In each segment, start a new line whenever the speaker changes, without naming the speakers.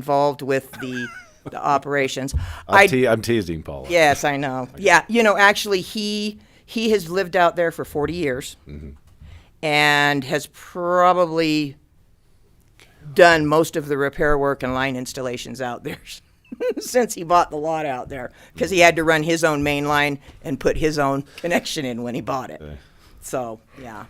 involved with the, the operations.
I'm,
I-
te- I'm teasing Paula.
Yes, I know. Yeah, you know, actually, he he has lived out there for forty years, and has probably done most of the repair work and line installations out there since he bought the lot out there because he had to run his own main line and put his own connection in when he bought it. So yeah,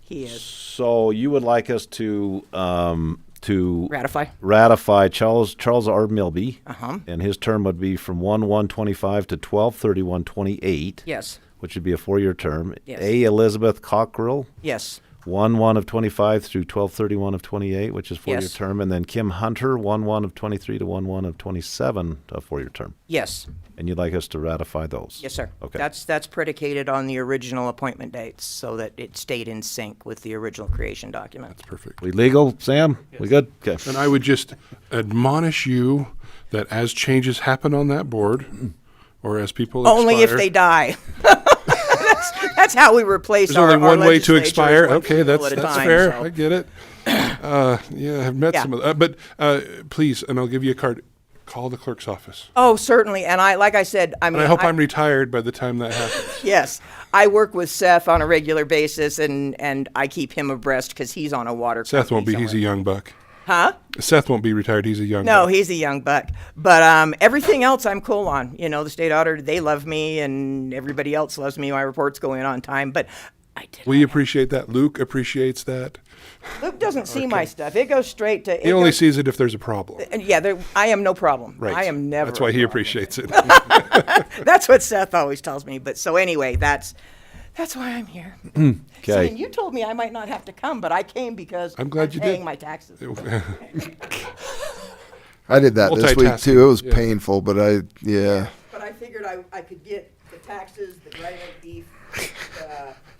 he is
So you would like us to um, to
ratify. Uh-huh.
ratify Charles Charles R. Milby, and his term would be from one one twenty five to twelve thirty one twenty eight.
Yes,
which would be a four year term.
Yes.
A. Elizabeth Cockrell,
yes,
one one of twenty five through twelve thirty one of twenty eight, which is four year
Yes.
term, and then Kim Hunter, one one of twenty three to one one of twenty seven, a four year term.
yes,
And you'd like us to ratify those?
yes, sir.
Okay.
That's that's predicated on the original appointment dates, so that it stayed in sync with the original creation document.
Perfect.
we legal, Sam? We good? Okay.
And I would just admonish you that as changes happen on that board, or as people
Only if
expire-
they die. that's, that's how we replace
There's
our,
only
our
one way to
legislature is
expire.
one
Okay,
people
that's
at a
that's
time,
fair.
so-
I get it. Uh, yeah, I've met
Yeah.
some of that. But uh, please, and I'll give you a card. Call the clerk's office.
Oh, certainly. And I, like I said, I mean,
And I hope
I-
I'm retired by the time that happens.
yes, I work with Seth on a regular basis, and and I keep him abreast because he's on a water.
Seth won't be.
company
He's a
somewhere.
young buck. Huh? Seth won't be retired. He's a young.
No,
buck.
he's a young buck. But um, everything else I'm cool on. You know, the state auditor, they love me, and everybody else loves me. My reports go in on time. But I did.
We appreciate that. Luke appreciates that.
Luke doesn't see my stuff. It goes straight to.
He
it
only
goes-
sees it if there's a problem.
and yeah, there, I am no problem.
Right.
I am never.
That's why
a
he
problem.
appreciates it.
That's what Seth always tells me. But so anyway, that's that's why I'm here.
Okay.
See, you told me I might not have to come, but I came because
I'm glad you did.
paying my taxes.
I did that this week
Multitasking,
too. It was
yeah.
painful, but I yeah.
But I figured I, I could get the taxes, the dried up beef,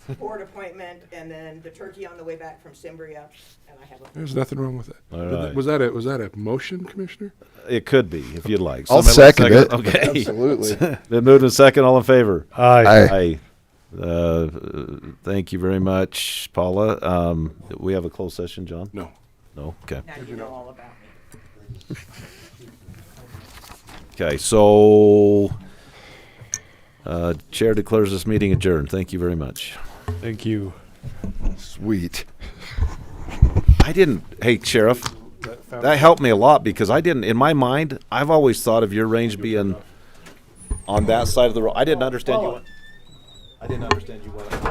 the board appointment, and then the turkey on the way back from Cimbria. And I have a
There's nothing wrong with it.
All
Did that-
right.
Was that a was that a motion, Commissioner?
It could be, if you'd like.
I'll
Somebody
second
like
it.
Okay.
Absolutely.
Been moved and second. All in favor?
Aye.
Aye. Uh, thank you very much, Paula. Um, we have a closed session, John?
No.
No? Okay.
now you know all about me.
Okay, so, uh, Chair declares this meeting adjourned. Thank you very much.
Thank you.
Sweet.
I didn't, hey, Sheriff, that helped me a lot because I didn't, in my mind, I've always thought of your range being on that side of the road. I didn't understand you. went- I didn't understand you went.